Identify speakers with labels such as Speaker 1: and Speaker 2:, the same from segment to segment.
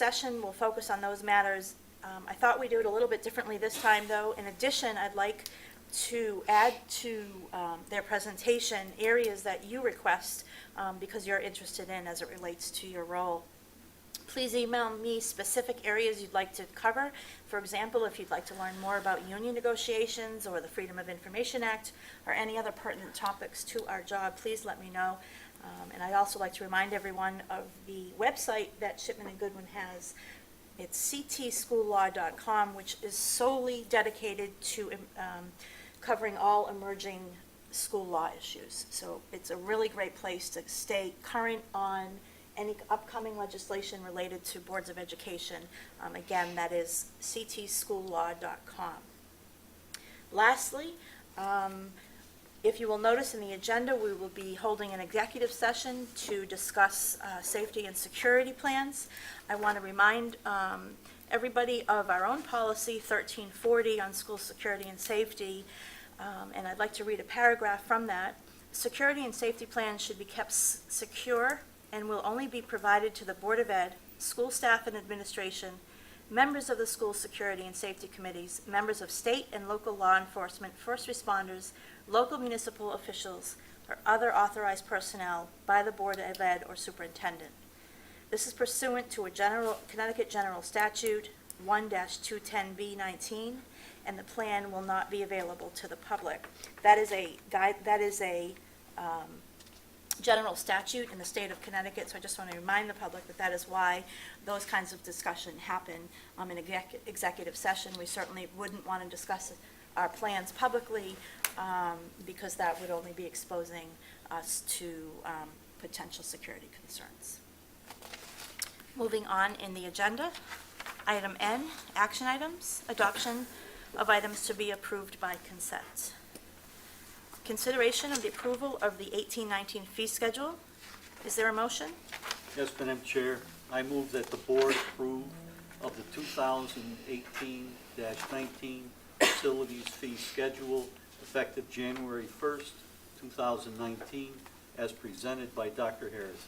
Speaker 1: session, we'll focus on those matters. Um, I thought we'd do it a little bit differently this time, though. In addition, I'd like to add to um, their presentation areas that you request um, because you're interested in as it relates to your role. Please email me specific areas you'd like to cover. For example, if you'd like to learn more about union negotiations or the Freedom of Information Act or any other pertinent topics to our job, please let me know. Um, And I'd also like to remind everyone of the website that Shipman and Goodwin has. It's ctschoollaw.com, which is solely dedicated to um, covering all emerging school law issues. So it's a really great place to stay current on any upcoming legislation related to boards of education. Um, Again, that is ctschoollaw.com. Lastly, um, if you will notice in the agenda, we will be holding an executive session to discuss uh, safety and security plans. I want to remind um, everybody of our own policy 1340 on school security and safety, Um, and I'd like to read a paragraph from that. Security and safety plans should be kept s- secure and will only be provided to the Board of Ed, school staff and administration, members of the school security and safety committees, members of state and local law enforcement, first responders, local municipal officials, or other authorized personnel by the Board of Ed or superintendent. This is pursuant to a general, Connecticut General Statute 1-210B19, and the plan will not be available to the public. That is a guide, that is a um, general statute in the state of Connecticut, so I just want to remind the public that that is why those kinds of discussion happen um, in exec- executive session. We certainly wouldn't want to discuss our plans publicly, um, because that would only be exposing us to um, potential security concerns. Moving on in the agenda, item N, action items, adoption of items to be approved by consent. Consideration of the approval of the 1819 fee schedule. Is there a motion?
Speaker 2: Yes, Madam Chair, I move that the board approve of the 2018-19 facilities fee schedule effective January 1st, 2019, as presented by Dr. Harris.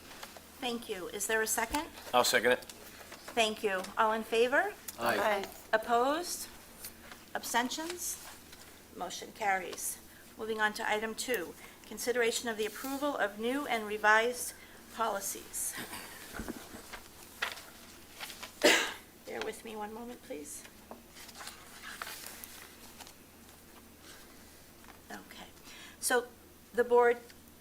Speaker 1: Thank you. Is there a second?
Speaker 3: I'll second it.
Speaker 1: Thank you. All in favor?
Speaker 2: Aye.
Speaker 1: Opposed? Abstentions? Motion carries. Moving on to item two, consideration of the approval of new and revised policies. Bear with me one moment, please. Okay. So the board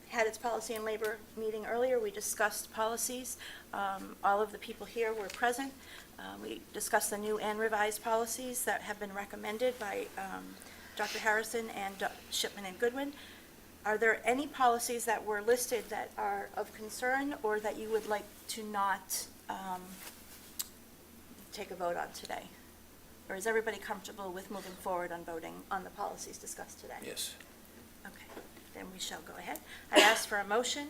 Speaker 1: had its policy and labor meeting earlier. We discussed policies. Um, All of the people here were present. Uh, We discussed the new and revised policies that have been recommended by um, Dr. Harrison and Doc- Shipman and Goodwin. Are there any policies that were listed that are of concern or that you would like to not um, take a vote on today? Or is everybody comfortable with moving forward on voting on the policies discussed today?
Speaker 3: Yes.
Speaker 1: Okay, then we shall go ahead. I ask for a motion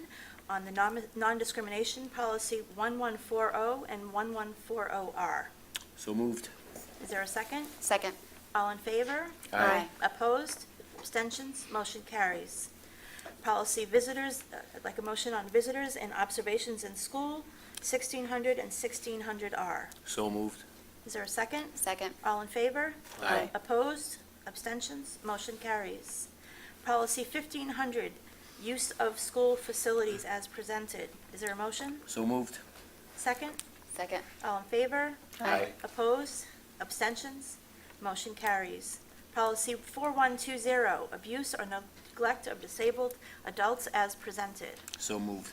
Speaker 1: on the non- non-discrimination policy 1140 and 1140R.
Speaker 3: So moved.
Speaker 1: Is there a second?
Speaker 4: Second.
Speaker 1: All in favor?
Speaker 4: Aye.
Speaker 1: Opposed? Abstentions? Motion carries. Policy visitors, uh, I'd like a motion on visitors and observations in school, 1600 and 1600R.
Speaker 3: So moved.
Speaker 1: Is there a second?
Speaker 4: Second.
Speaker 1: All in favor?
Speaker 4: Aye.
Speaker 1: Opposed? Abstentions? Motion carries. Policy 1500, use of school facilities as presented. Is there a motion?
Speaker 3: So moved.
Speaker 1: Second?
Speaker 4: Second.
Speaker 1: All in favor?
Speaker 3: Aye.
Speaker 1: Opposed? Abstentions? Motion carries. Policy 4120, abuse or neglect of disabled adults as presented.
Speaker 3: So moved.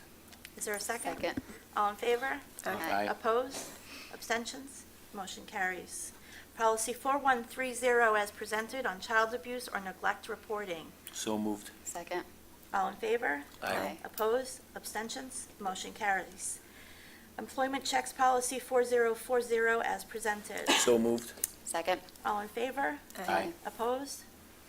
Speaker 1: Is there a second?
Speaker 4: Second.
Speaker 1: All in favor?
Speaker 4: Aye.
Speaker 1: Opposed? Abstentions? Motion carries. Policy 4130 as presented on child abuse or neglect reporting.
Speaker 3: So moved.
Speaker 4: Second.
Speaker 1: All in favor?
Speaker 4: Aye.
Speaker 1: Opposed? Abstentions? Motion carries. Employment checks policy 4040 as presented.
Speaker 3: So moved.
Speaker 4: Second.
Speaker 1: All in favor?
Speaker 3: Aye.
Speaker 1: Opposed?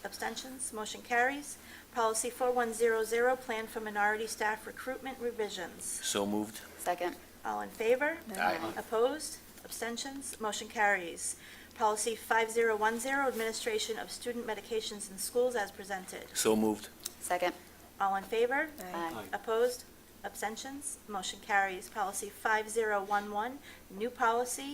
Speaker 1: Abstentions? Motion carries. Policy 4100 plan for minority staff recruitment revisions.
Speaker 3: So moved.
Speaker 4: Second.
Speaker 1: All in favor?
Speaker 3: Aye.
Speaker 1: Opposed? Abstentions? Motion carries. Policy 5010, Administration of Student Medications in Schools as presented.
Speaker 3: So moved.
Speaker 4: Second.
Speaker 1: All in favor?
Speaker 4: Aye.
Speaker 2: Aye.
Speaker 1: Opposed? Abstentions? Motion carries. Policy 5011, new policy,